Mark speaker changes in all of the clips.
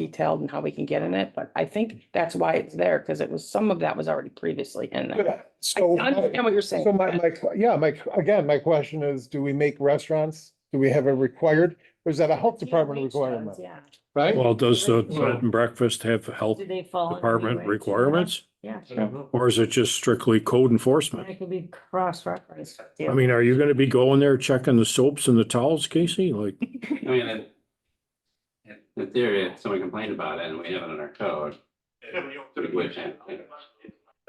Speaker 1: detailed and how we can get in it, but I think that's why it's there, because it was, some of that was already previously in there.
Speaker 2: Yeah,
Speaker 1: I
Speaker 2: So,
Speaker 1: understand what you're saying.
Speaker 2: so my, my, yeah, my, again, my question is, do we make restaurants? Do we have a required, or is that a health department requirement,
Speaker 1: Yeah.
Speaker 2: right?
Speaker 3: Well, does the
Speaker 1: Well-
Speaker 3: bed and breakfast have health
Speaker 4: Do they fall? under
Speaker 3: department
Speaker 4: regulations?
Speaker 3: requirements?
Speaker 4: Yeah,
Speaker 5: I don't know.
Speaker 3: Or is it just strictly code
Speaker 4: and it
Speaker 3: enforcement?
Speaker 4: could be cross-referenced.
Speaker 3: I mean, are you gonna be going there checking the soaps and the towels, Casey? Like,
Speaker 5: I mean, in- in- in theory, if someone complained about it and we have it in our code, we would change it.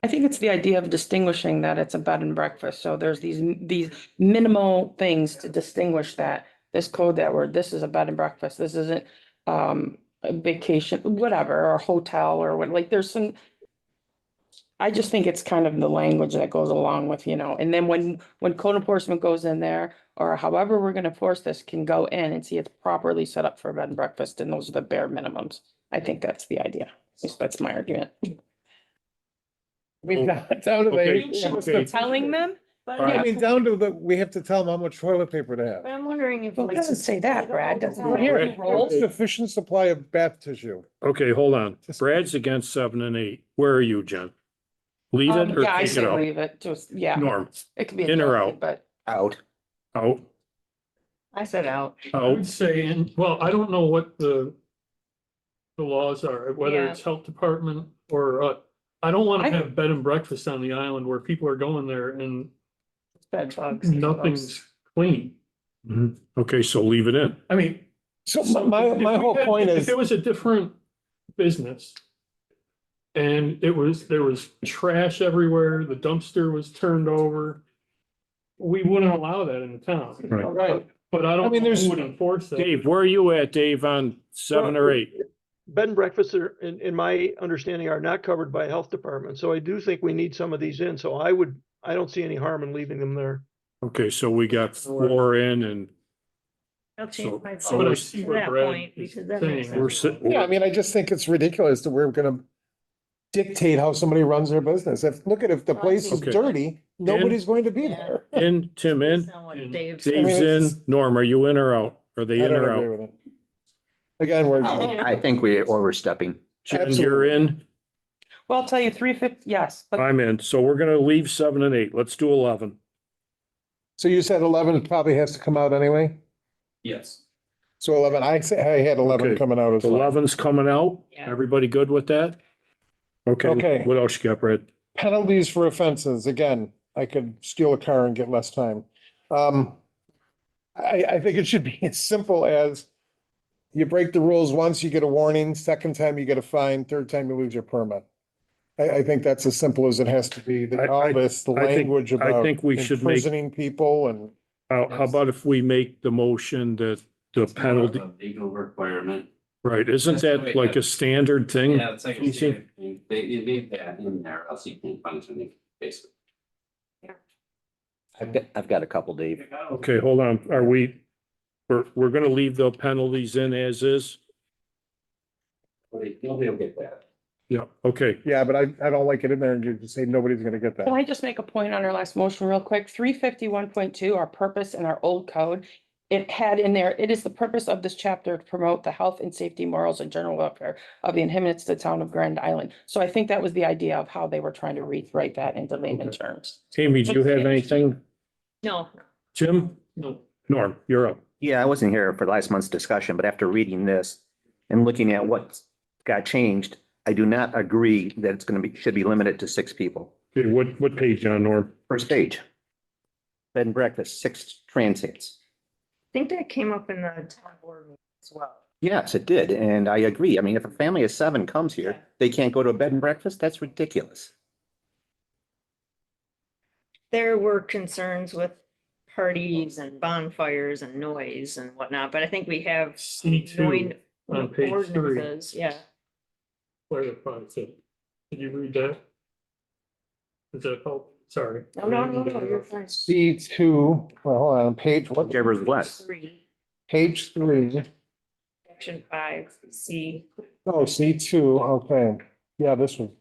Speaker 1: I think it's the idea of distinguishing that it's a bed and breakfast, so there's these, these minimal things to distinguish that. This code that we're, this is a bed and breakfast, this isn't, um, a vacation, whatever, or hotel or what, like, there's some. I just think it's kind of the language that goes along with, you know, and then when, when code enforcement goes in there, or however we're gonna force this, can go in and see it's properly set up for a bed and breakfast, and those are the bare minimums. I think that's the idea, At least that's my argument.
Speaker 2: I mean, down to
Speaker 3: Okay, okay.
Speaker 2: the.
Speaker 1: Telling them?
Speaker 4: But
Speaker 3: All
Speaker 2: I
Speaker 3: right.
Speaker 2: mean, down to the, we have to tell them how much toilet paper to
Speaker 4: but
Speaker 2: have.
Speaker 4: I'm wondering if.
Speaker 1: Well, it doesn't say that, Brad, doesn't it?
Speaker 2: Here,
Speaker 3: Rolls.
Speaker 2: sufficient supply of bath tissue.
Speaker 3: okay, hold on. Brad's against seven and eight. Where are you, Jen? Leave
Speaker 1: Um,
Speaker 3: it or
Speaker 1: Yeah, I
Speaker 3: take it
Speaker 1: say
Speaker 3: out?
Speaker 1: leave it, just, yeah,
Speaker 3: Norm,
Speaker 1: it could be.
Speaker 3: In or
Speaker 1: adjusted,
Speaker 3: out?
Speaker 1: But
Speaker 6: out.
Speaker 3: out,
Speaker 4: I said out.
Speaker 7: I would
Speaker 3: out.
Speaker 7: say, and, well, I don't know what the the laws are, whether
Speaker 4: Yeah.
Speaker 7: it's health department or, uh, I don't want
Speaker 1: I-
Speaker 7: to have bed and breakfast on the island where people are going there and
Speaker 4: Bed bugs.
Speaker 7: nothing's clean.
Speaker 3: Mhm. Okay, so leave it in.
Speaker 7: I mean.
Speaker 2: So my- my,
Speaker 7: if- if
Speaker 2: my
Speaker 7: we
Speaker 2: whole
Speaker 7: had-
Speaker 2: point
Speaker 7: if
Speaker 2: is,
Speaker 7: It was a different business. And it was, there was trash everywhere, the dumpster was turned over. We wouldn't allow that in the town,
Speaker 3: Right.
Speaker 2: right,
Speaker 7: but I
Speaker 2: I
Speaker 7: don't,
Speaker 2: mean, there's-
Speaker 7: who would enforce that.
Speaker 3: Dave, where are you at, Dave, on seven or eight?
Speaker 8: bed and breakfasts are, in, in my understanding, are not covered by health department, so I do think we need some of these in, so I would, I don't see any harm in leaving them there.
Speaker 3: Okay, so we got four in and So-
Speaker 4: I'll change my
Speaker 3: so
Speaker 7: But I
Speaker 3: we're-
Speaker 4: vote
Speaker 7: see
Speaker 4: to
Speaker 7: where
Speaker 4: that
Speaker 7: Brad
Speaker 4: point
Speaker 7: is
Speaker 4: because that makes
Speaker 7: saying.
Speaker 4: sense.
Speaker 3: we're si-
Speaker 2: yeah, I mean, I just think it's ridiculous that we're gonna dictate how somebody runs their business. If, look at, if
Speaker 1: Oh,
Speaker 2: the place is
Speaker 3: Okay.
Speaker 2: dirty, nobody's going to be there.
Speaker 3: in, Tim in,
Speaker 4: Based on what
Speaker 7: in-
Speaker 4: Dave said.
Speaker 3: Dave's in. Norm, are you in or out? Are
Speaker 2: I
Speaker 3: they in
Speaker 2: don't
Speaker 3: or
Speaker 2: agree
Speaker 3: out?
Speaker 2: with it. Again, we're.
Speaker 1: Oh,
Speaker 6: I think we're overstepping.
Speaker 3: Jen, you're in?
Speaker 1: Well, I'll tell you, three fifty, yes, but
Speaker 3: I'm in. So we're gonna leave seven and eight. Let's do eleven.
Speaker 2: So you said eleven probably has to come out anyway?
Speaker 5: Yes.
Speaker 2: So eleven, I say, I had eleven
Speaker 3: Okay.
Speaker 2: coming out as well.
Speaker 3: Eleven's coming out.
Speaker 4: Yeah.
Speaker 3: Everybody good with that? Okay,
Speaker 2: Okay.
Speaker 3: what else you got, Brad?
Speaker 2: Penalties for offenses, again, I could steal a car and get less time. Um, I, I think it should be as simple as you break the rules once, you get a warning, second time you get a fine, third time you lose your permit. I, I think that's as simple as it has to be, that
Speaker 3: I-
Speaker 2: all
Speaker 3: I-
Speaker 2: this, the
Speaker 3: I think-
Speaker 2: language
Speaker 3: I
Speaker 2: about
Speaker 3: think we should make-
Speaker 2: imprisoning people and,
Speaker 3: How, how about if we make the motion that the penalty,
Speaker 5: Legal requirement.
Speaker 3: right, isn't that like a standard thing?
Speaker 5: Yeah, it's like,
Speaker 3: You see-
Speaker 5: they, they need that in there, else you can't punish them, basically.
Speaker 6: I've got, I've got a couple, Dave.
Speaker 3: Okay, hold on, are we, we're, we're gonna leave the penalties in as is?
Speaker 5: Nobody nobody will get that.
Speaker 3: Yeah, okay,
Speaker 2: yeah, but I, I don't like it in there and you just say nobody's gonna get that.
Speaker 1: can I just make a point on our last motion real quick? Three fifty one point two, our purpose in our old code. It had in there, it is the purpose of this chapter to promote the health and safety morals and general welfare of the inhabitants of the town of Grand Island. So I think that was the idea of how they were trying to rewrite that into layman terms.
Speaker 3: Tammy, do you have anything?
Speaker 4: No,
Speaker 3: Jim?
Speaker 7: No.
Speaker 3: Norm, you're up.
Speaker 6: Yeah, I wasn't here for last month's discussion, but after reading this and looking at what got changed, I do not agree that it's gonna be, should be limited to six people.
Speaker 3: Okay, what, what page on, Norm?
Speaker 6: First page. Bed and breakfast, six transits.
Speaker 4: I think that came up in the town board meeting as well.
Speaker 6: Yes, it did, and I agree. I mean, if a family of seven comes here, they can't go to a bed and breakfast? That's ridiculous.
Speaker 4: There were concerns with parties and bonfires and noise and whatnot, but I think we have
Speaker 7: C two
Speaker 4: noise
Speaker 7: on page three.
Speaker 4: ordinances, yeah.
Speaker 7: clarifies it. Did you read that? Does that help? Sorry.
Speaker 4: No, no, no,
Speaker 7: uh,
Speaker 4: no, you're fine.
Speaker 2: C two, well, hold on, page, what,
Speaker 6: Whichever's less.
Speaker 4: Three,
Speaker 2: page three.
Speaker 4: section five, C.
Speaker 2: Oh, C two, okay, yeah, this one.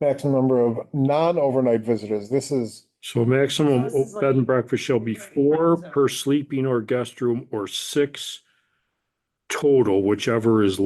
Speaker 2: Maximum number of non-overnight visitors, this is,
Speaker 3: So maximum
Speaker 4: This is like-
Speaker 3: bed and breakfast shall be four per sleeping or guest room or six total, whichever is